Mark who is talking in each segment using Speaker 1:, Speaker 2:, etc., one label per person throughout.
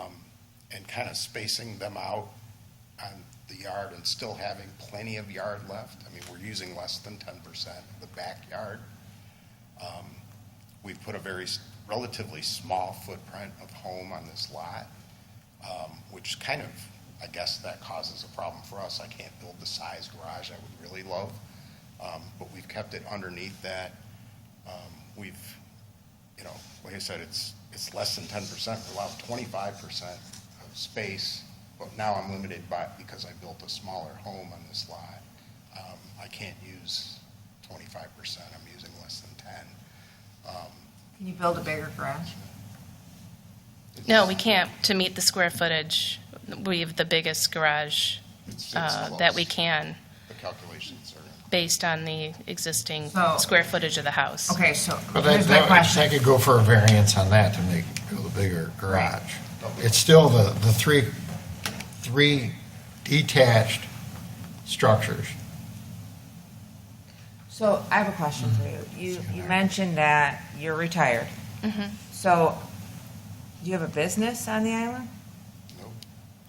Speaker 1: um, kind of spacing them out on the yard and still having plenty of yard left. I mean, we're using less than ten percent of the backyard. Um, We've put a very s- relatively small footprint of home on this lot, um, which kind of, I guess that causes a problem for us. I can't build the size garage I would really love, um, but we've kept it underneath that. Um, We've you know, like I said, it's, it's less than ten percent, we're allowed twenty-five percent of space, but now I'm limited by, because I built a smaller home on this lot. Um, I can't use twenty-five percent, I'm using less than ten.
Speaker 2: Can you build a bigger garage?
Speaker 3: No, we can't, to meet the square footage, we have the biggest garage
Speaker 1: It's- it's
Speaker 3: uh, that we
Speaker 1: close.
Speaker 3: can,
Speaker 1: The calculations are,
Speaker 3: based on the existing
Speaker 2: So-
Speaker 3: square footage of the house.
Speaker 2: Okay, so
Speaker 4: But
Speaker 2: here's my
Speaker 4: I
Speaker 2: question.
Speaker 4: could go for a variance on that to make, build a bigger garage. It's still the, the three, three detached structures.
Speaker 2: So I have a question for you. You, you mentioned that you're retired. So do you have a business on the island?
Speaker 1: no,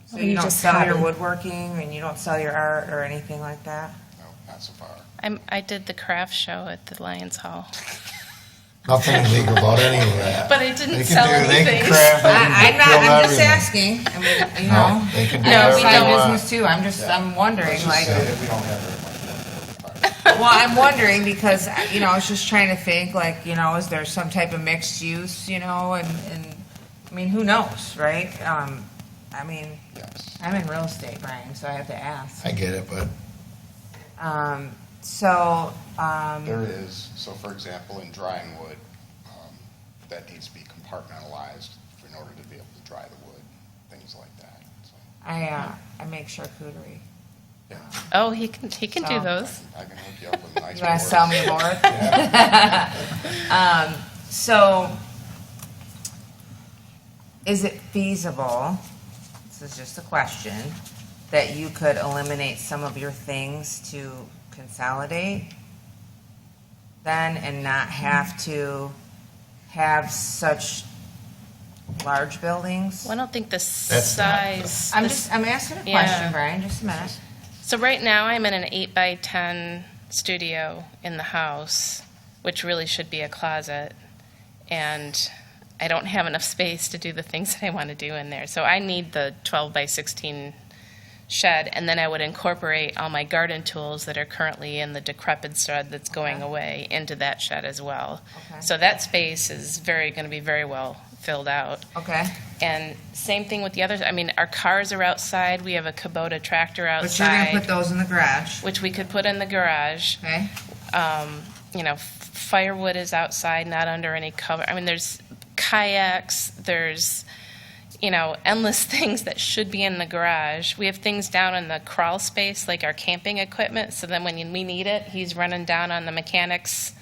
Speaker 2: So
Speaker 5: Or
Speaker 2: you
Speaker 5: you
Speaker 2: don't
Speaker 5: just
Speaker 2: sell
Speaker 5: have
Speaker 2: your
Speaker 5: it?
Speaker 2: woodworking and you don't sell your art or anything like that?
Speaker 1: no, not so far.
Speaker 3: I'm, I did the craft show at the Lions Hall,
Speaker 4: Nothing illegal about any of that.
Speaker 3: but I
Speaker 4: They
Speaker 3: didn't
Speaker 4: can
Speaker 3: sell
Speaker 4: do, they can
Speaker 3: anything.
Speaker 4: craft, they
Speaker 2: I,
Speaker 4: can
Speaker 2: I'm not, I'm just
Speaker 4: build everything.
Speaker 2: asking. I mean, you
Speaker 4: No,
Speaker 2: know.
Speaker 4: they can do
Speaker 3: No,
Speaker 2: I
Speaker 3: we
Speaker 2: have
Speaker 3: don't.
Speaker 2: a
Speaker 4: whatever
Speaker 2: business too. I'm just, I'm wondering, like,
Speaker 4: they
Speaker 1: We don't have very much. room.
Speaker 2: well, I'm wondering because, you know, I was just trying to think, like, you know, is there some type of mixed use, you know, and, and, I mean, who knows, right? Um, I mean,
Speaker 1: Yes,
Speaker 2: I'm in real estate, Brian, so I have to ask.
Speaker 4: I get it, but
Speaker 2: Um, so, um,
Speaker 1: there is, so for example, in drying wood, um, that needs to be compartmentalized in order to be able to dry the wood, things like that, so.
Speaker 2: I, uh, I make charcuterie.
Speaker 3: Oh, he can, he can do
Speaker 2: So-
Speaker 3: those.
Speaker 1: I can hook you up with a nice.
Speaker 2: You want to sell me a board? Um, So, is it feasible, this is just a question, that you could eliminate some of your things to consolidate then and not have to have such large buildings?
Speaker 3: Well, I don't think the
Speaker 4: That's not the-
Speaker 3: size.
Speaker 2: I'm
Speaker 3: the
Speaker 2: just, I'm asking a
Speaker 3: Yeah.
Speaker 2: question, Brian, just a minute.
Speaker 3: So right now, I'm in an eight by ten studio in the house, which really should be a closet, and I don't have enough space to do the things that I want to do in there. So I need the twelve by sixteen shed, and then I would incorporate all my garden tools that are currently in the decrepit shed that's going
Speaker 2: Okay.
Speaker 3: away into that shed as well.
Speaker 2: Okay.
Speaker 3: So that space is very, going to be very well filled out.
Speaker 2: Okay,
Speaker 3: And same thing with the others. I mean, our cars are outside. We have a Kubota tractor
Speaker 2: but you're going to put
Speaker 3: outside,
Speaker 2: those in the garage,
Speaker 3: which we could put in the garage.
Speaker 2: okay?
Speaker 3: Um, you know, f- firewood is outside, not under any cover. I mean, there's kayaks, there's, you know, endless things that should be in the garage. We have things down in the crawl space, like our camping equipment. So then when you- we need it, he's running down on the mechanic's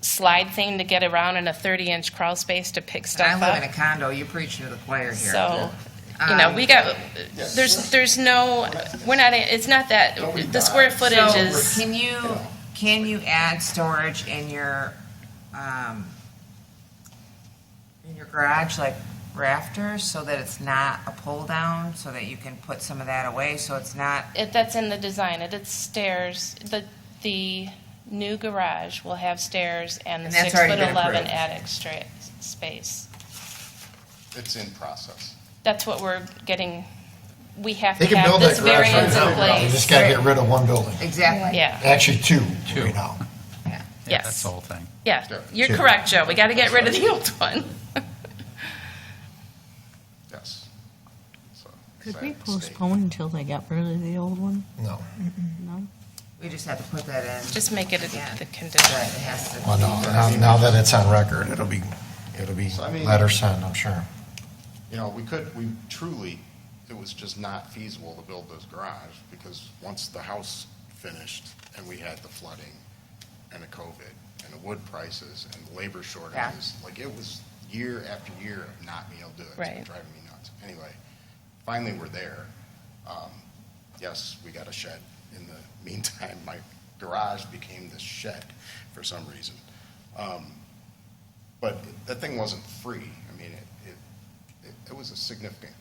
Speaker 3: slide thing to get around in a 30 inch crawl space to pick stuff
Speaker 2: I
Speaker 3: up.
Speaker 2: live in a condo, you're preaching to the choir here. Um,
Speaker 3: So, you know, we got, there's, there's no, we're not, it's not that, the square footage
Speaker 2: So,
Speaker 3: is,
Speaker 2: Can you, can you add storage in your, um, in your garage, like rafters, so that it's not a pull down, so that you can put some of that away, so it's not,
Speaker 3: it- that's in the design, it, it's stairs, the, the new garage will have stairs and the
Speaker 2: And that's
Speaker 3: six
Speaker 2: already
Speaker 3: foot
Speaker 2: been
Speaker 3: eleven
Speaker 2: approved.
Speaker 3: attic stra- space.
Speaker 1: It's in process.
Speaker 3: That's what we're getting, we have to
Speaker 4: they can
Speaker 3: have
Speaker 4: build
Speaker 3: this
Speaker 4: that garage right
Speaker 3: variance in
Speaker 4: now. You
Speaker 3: place.
Speaker 4: just gotta get rid of one building.
Speaker 2: exactly.
Speaker 3: Yeah,
Speaker 4: Actually, two right now.
Speaker 3: Yes.
Speaker 5: That's the whole thing.
Speaker 3: yeah, you're
Speaker 4: Sure.
Speaker 3: correct, Joe, we gotta get rid of the old one.
Speaker 1: Yes. So,
Speaker 6: Could
Speaker 1: so
Speaker 6: we
Speaker 1: it's state.
Speaker 6: postpone until they got rid of the old one?
Speaker 4: No,
Speaker 6: No?
Speaker 2: We just have to put that in,
Speaker 3: Just make it
Speaker 2: Yeah.
Speaker 3: a- the
Speaker 2: but
Speaker 3: condition.
Speaker 2: it has to.
Speaker 4: well, no, now, now that it's on record, it'll be, it'll be
Speaker 1: So, I mean-
Speaker 4: letter sent, I'm sure.
Speaker 1: You know, we could, we truly, it was just not feasible to build this garage because once the house finished and we had the flooding and the COVID and the wood prices and the labor shortages, like it was year after year of not being able to do it. It's been
Speaker 3: Right.
Speaker 1: Driving me nuts. Anyway, finally we're there. Um, Yes, we got a shed. In the meantime, my garage became this shed for some reason. Um, But that thing wasn't free. I mean, it, it, it- it was a significant